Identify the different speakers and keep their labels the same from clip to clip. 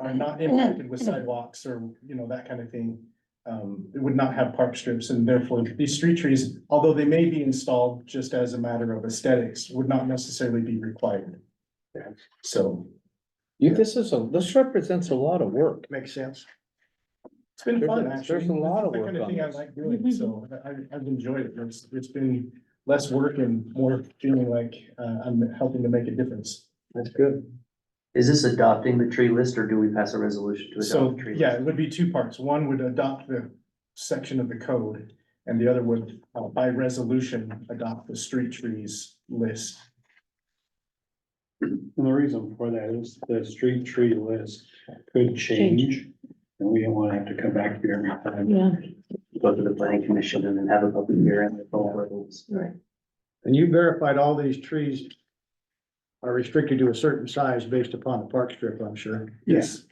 Speaker 1: are not impacted with sidewalks or, you know, that kind of thing. Um, it would not have park strips and therefore these street trees, although they may be installed just as a matter of aesthetics, would not necessarily be required. So
Speaker 2: You, this is a, this represents a lot of work.
Speaker 3: Makes sense.
Speaker 1: it's been fun,
Speaker 2: There's-
Speaker 1: actually.
Speaker 2: there's a lot of
Speaker 1: It's the
Speaker 2: work
Speaker 1: kind
Speaker 2: on
Speaker 1: thing I
Speaker 2: this.
Speaker 1: like doing, so I, I've enjoyed it. It's, it's been less work and more feeling like, uh, I'm helping to make a difference.
Speaker 3: That's good.
Speaker 4: Is this adopting the tree list or do we pass a resolution to
Speaker 1: So,
Speaker 4: adopt the tree?
Speaker 1: yeah,
Speaker 4: list?
Speaker 1: it would be two parts. One would adopt the section of the code and the other would, uh, by resolution, adopt the street trees list.
Speaker 5: And the reason for that is the street tree list could change. And we don't wanna have to come back here every time.
Speaker 6: Yeah,
Speaker 4: Go to the planning commission and then have a public hearing with all levels.
Speaker 6: right.
Speaker 3: And you verified all these trees are restricted to a certain size based upon the park strip, I'm sure.
Speaker 1: Yes.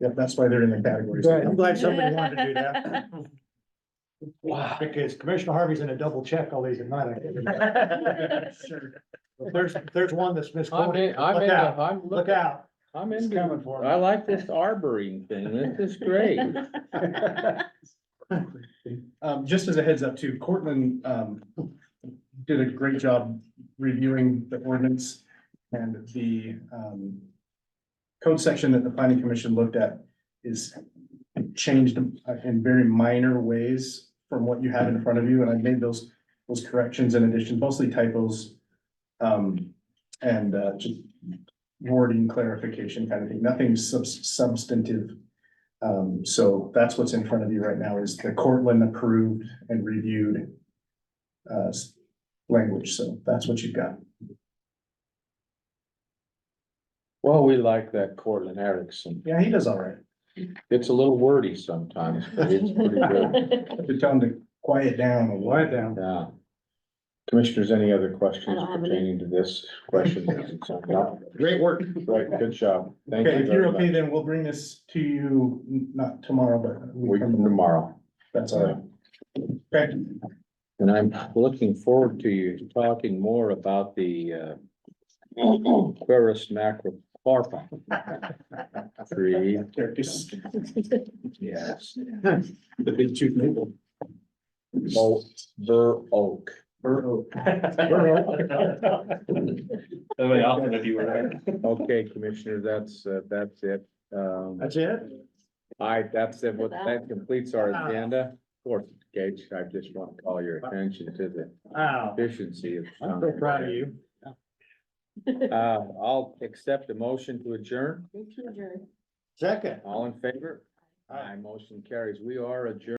Speaker 1: Yep, that's why they're in the categories.
Speaker 3: I'm glad somebody wanted to do that. Because Commissioner Harvey's gonna double check all these at night. I think.
Speaker 1: Sure.
Speaker 3: If There's, if there's one that's
Speaker 2: I'm
Speaker 3: misquoted.
Speaker 2: in, I'm
Speaker 3: Look
Speaker 2: in,
Speaker 3: out,
Speaker 2: I'm
Speaker 3: look
Speaker 2: looking,
Speaker 3: out.
Speaker 2: I'm
Speaker 5: It's
Speaker 2: in.
Speaker 5: coming for
Speaker 2: I
Speaker 5: them.
Speaker 2: like this arboring thing. This is great.
Speaker 1: Um, just as a heads up too, Cortland, um, did a great job reviewing the ordinance and the, um, code section that the planning commission looked at is changed uh, in very minor ways from what you have in front of you, and I made those, those corrections in addition, mostly typos. Um, and, uh, just wording clarification kind of thing, nothing subs- substantive. Um, so that's what's in front of you right now is the Cortland approved and reviewed uh, s- language, so that's what you've got.
Speaker 2: Well, we like that Cortland Erickson.
Speaker 1: Yeah, he does all right.
Speaker 2: It's a little wordy sometimes, but it's pretty good.
Speaker 1: Just tell him to quiet down a little.
Speaker 3: Lie down.
Speaker 2: Yeah. Commissioners, any other questions
Speaker 6: I don't have any.
Speaker 2: pertaining to this question? No?
Speaker 3: Great work.
Speaker 2: Right, good job. Thank
Speaker 1: Okay,
Speaker 2: you
Speaker 1: if you're
Speaker 2: very
Speaker 1: okay,
Speaker 2: much.
Speaker 1: then we'll bring this to you, n- not tomorrow, but we
Speaker 2: We come
Speaker 1: can,
Speaker 2: tomorrow.
Speaker 1: that's all right. Okay,
Speaker 2: And I'm looking forward to you talking more about the uh. Aquarius macrocarpa. Tree,
Speaker 1: there, just-
Speaker 2: yes,
Speaker 1: the big chief maple.
Speaker 2: oh, bur oak.
Speaker 1: Bur oak.
Speaker 7: Somebody else would be right.
Speaker 2: Okay, Commissioner, that's uh, that's it. Um,
Speaker 3: That's it?
Speaker 2: I, that's it, what that completes our agenda. Of course, Gage, I just want to call your attention to the
Speaker 3: Wow.
Speaker 2: efficiency of.
Speaker 3: I'm so proud of you.
Speaker 2: Uh, I'll accept a motion to adjourn.
Speaker 3: Second.
Speaker 2: All in favor? Aye, motion carries. We are adjourned.